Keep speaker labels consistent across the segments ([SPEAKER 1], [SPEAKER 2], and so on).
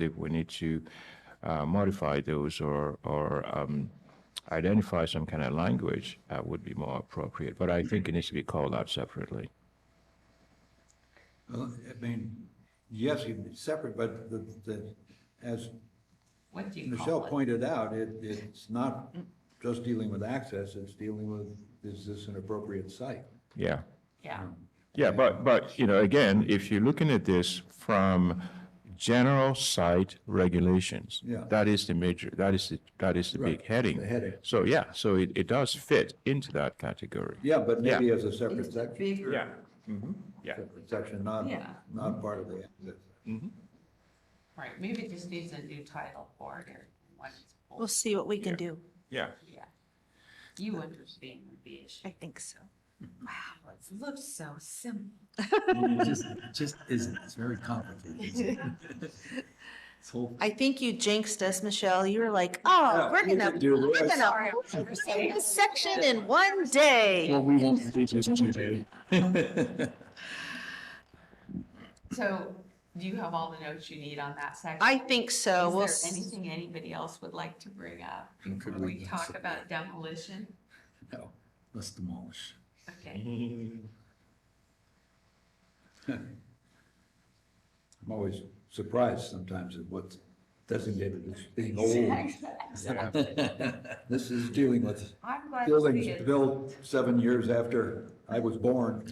[SPEAKER 1] if we need to uh, modify those or, or um, identify some kind of language that would be more appropriate. But I think it needs to be called out separately.
[SPEAKER 2] Well, I mean, yes, you'd be separate, but the, the, as
[SPEAKER 3] What do you
[SPEAKER 2] Michelle
[SPEAKER 3] call it?
[SPEAKER 2] pointed out, it, it's not just dealing with access, it's dealing with, is this an appropriate site?
[SPEAKER 1] Yeah.
[SPEAKER 3] Yeah,
[SPEAKER 1] Yeah, but, but, you know, again, if you're looking at this from general site regulations,
[SPEAKER 2] Yeah.
[SPEAKER 1] that is the major, that is, the that is the big heading.
[SPEAKER 2] the heading.
[SPEAKER 1] So, yeah, so it, it does fit into that category.
[SPEAKER 2] Yeah, but
[SPEAKER 1] Yeah.
[SPEAKER 2] maybe as a separate
[SPEAKER 3] it's a
[SPEAKER 2] section,
[SPEAKER 3] bigger.
[SPEAKER 1] Yeah.
[SPEAKER 2] separate section, not,
[SPEAKER 3] Yeah.
[SPEAKER 2] not part of the access.
[SPEAKER 3] Right, maybe it just needs a new title for it or what it's
[SPEAKER 4] We'll
[SPEAKER 3] called,
[SPEAKER 4] see what we can
[SPEAKER 1] Yeah.
[SPEAKER 4] do.
[SPEAKER 1] Yeah.
[SPEAKER 3] yeah. You understand the issue.
[SPEAKER 4] I think so.
[SPEAKER 3] Wow, it looks so simple.
[SPEAKER 5] It just, it just isn't. It's very complicated. This whole
[SPEAKER 4] I think you jinxed us, Michelle. You were like, oh,
[SPEAKER 2] Yeah,
[SPEAKER 4] we're
[SPEAKER 2] we
[SPEAKER 4] gonna,
[SPEAKER 2] could do
[SPEAKER 4] we're
[SPEAKER 2] this.
[SPEAKER 4] gonna take this section in one day.
[SPEAKER 5] we won't do this today.
[SPEAKER 3] So do you have all the notes you need on that section?
[SPEAKER 4] I think so. We'll,
[SPEAKER 3] Is there
[SPEAKER 4] s-
[SPEAKER 3] anything anybody else would like to bring up
[SPEAKER 5] Could
[SPEAKER 3] before
[SPEAKER 5] we
[SPEAKER 3] we
[SPEAKER 5] get
[SPEAKER 3] talk
[SPEAKER 5] some-
[SPEAKER 3] about demolition?
[SPEAKER 5] No, let's demolish.
[SPEAKER 3] Okay,
[SPEAKER 1] Mm-hmm.
[SPEAKER 2] I'm always surprised sometimes at what's designated as being old. This is dealing with
[SPEAKER 3] I'm glad to see
[SPEAKER 2] buildings
[SPEAKER 3] it.
[SPEAKER 2] built seven years after I was born.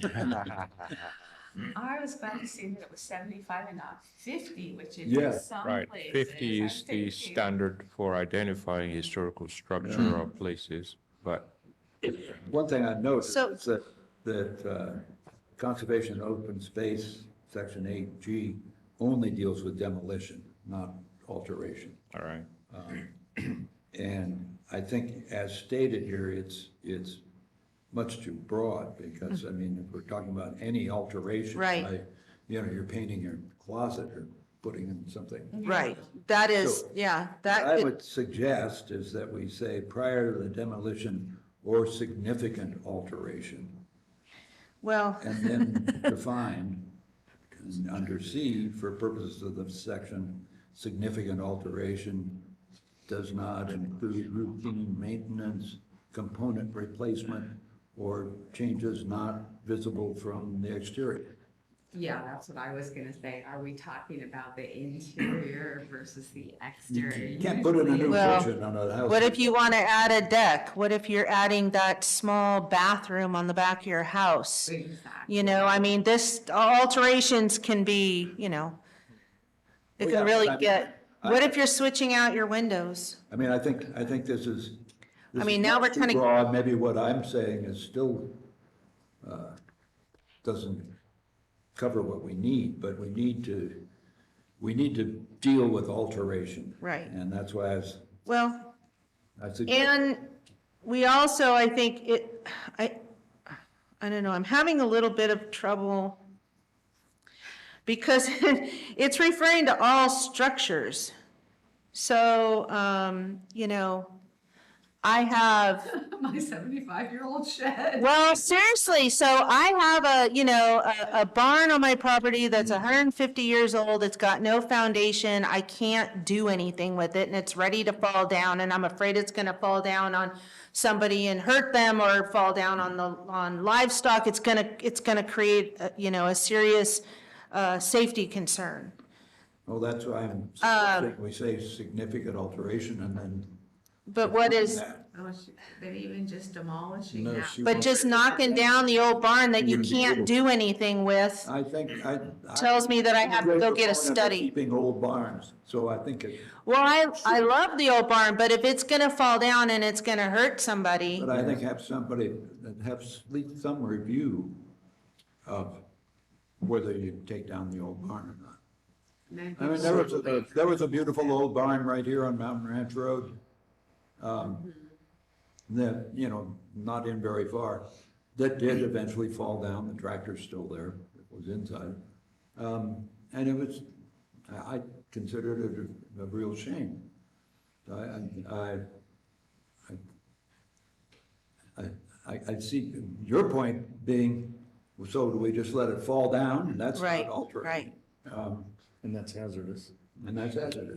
[SPEAKER 3] I was glad to see that it was seventy-five and not fifty, which is
[SPEAKER 2] Yeah,
[SPEAKER 3] in some
[SPEAKER 1] Right,
[SPEAKER 3] places.
[SPEAKER 1] fifty
[SPEAKER 3] I'm
[SPEAKER 1] is the
[SPEAKER 3] thinking-
[SPEAKER 1] standard for identifying historical structure or places, but
[SPEAKER 2] One thing I noticed
[SPEAKER 4] So-
[SPEAKER 2] is that, that uh, Conservation and Open Space, Section 8G, only deals with demolition, not alteration.
[SPEAKER 1] all right.
[SPEAKER 2] And I think as stated here, it's, it's much too broad because, I mean, if we're talking about any alteration.
[SPEAKER 4] Right.
[SPEAKER 2] like, You know, you're painting your closet or putting in something.
[SPEAKER 4] right. That is,
[SPEAKER 2] So,
[SPEAKER 4] yeah,
[SPEAKER 2] What I
[SPEAKER 4] that could,
[SPEAKER 2] would suggest is that we say prior to the demolition or significant alteration.
[SPEAKER 4] well,
[SPEAKER 2] And then define and under C, for purposes of the section, significant alteration does not include routine maintenance, component replacement, or changes not visible from the exterior.
[SPEAKER 3] Yeah, that's what I was gonna say. Are we talking about the interior versus the exterior?
[SPEAKER 2] You can't put in a new
[SPEAKER 3] Usually-
[SPEAKER 4] Well,
[SPEAKER 2] kitchen on a house.
[SPEAKER 4] what if you want to add a deck? What if you're adding that small bathroom on the back of your house?
[SPEAKER 3] Exactly.
[SPEAKER 4] You know, I mean, this, alterations can be, you know, it
[SPEAKER 2] Well,
[SPEAKER 4] can
[SPEAKER 2] yeah,
[SPEAKER 4] really
[SPEAKER 2] but I mean,
[SPEAKER 4] get,
[SPEAKER 2] I-
[SPEAKER 4] what if you're switching out your windows?
[SPEAKER 2] I mean, I think, I think this is. this
[SPEAKER 4] I mean,
[SPEAKER 2] is
[SPEAKER 4] now
[SPEAKER 2] much
[SPEAKER 4] we're
[SPEAKER 2] too
[SPEAKER 4] kinda-
[SPEAKER 2] Broad, maybe what I'm saying is still, uh, doesn't cover what we need, but we need to, we need to deal with alteration.
[SPEAKER 4] Right.
[SPEAKER 2] And that's why I was,
[SPEAKER 4] Well,
[SPEAKER 2] I suggest,
[SPEAKER 4] And we also, I think it, I, I don't know, I'm having a little bit of trouble because it's referring to all structures. So, um, you know, I have
[SPEAKER 3] My seventy-five-year-old shed.
[SPEAKER 4] well, seriously, so I have a, you know, a, a barn on my property that's hundred and fifty years old, it's got no foundation, I can't do anything with it, and it's ready to fall down, and I'm afraid it's gonna fall down on somebody and hurt them, or fall down on the, on livestock, it's gonna, it's gonna create, uh, you know, a serious, uh, safety concern.
[SPEAKER 2] well, that's why I'm
[SPEAKER 4] uh,
[SPEAKER 2] suggesting we say significant alteration and then.
[SPEAKER 4] But what is,
[SPEAKER 3] Oh, she- But even just demolishing
[SPEAKER 2] No,
[SPEAKER 3] that.
[SPEAKER 2] she
[SPEAKER 4] but just knocking down the old barn that you
[SPEAKER 2] Wouldn't be able
[SPEAKER 4] can't
[SPEAKER 2] to.
[SPEAKER 4] do anything with,
[SPEAKER 2] I think, I. I-
[SPEAKER 4] tells me that I have to go get a
[SPEAKER 2] Proponent of
[SPEAKER 4] study.
[SPEAKER 2] Keeping old barns, so I think it.
[SPEAKER 4] Well, I, I love the old barn, but if it's gonna fall down and it's gonna hurt somebody,
[SPEAKER 2] But I think have somebody, have at least some review of whether you take down the old barn or not.
[SPEAKER 3] And then
[SPEAKER 2] I mean, there was, a- there was a beautiful old barn right here on Mountain Ranch Road. um,
[SPEAKER 4] Mm-hmm.
[SPEAKER 2] That, you know, not in very far, that did eventually fall down, the tractor's still there, it was inside. Um, And it was, I I considered it a- a real shame. I, I- I, I, I, I see your point being, so do we just let it fall down? That's not
[SPEAKER 4] right,
[SPEAKER 2] altering.
[SPEAKER 4] right.
[SPEAKER 2] Um,
[SPEAKER 5] And that's hazardous.
[SPEAKER 2] and that's hazardous.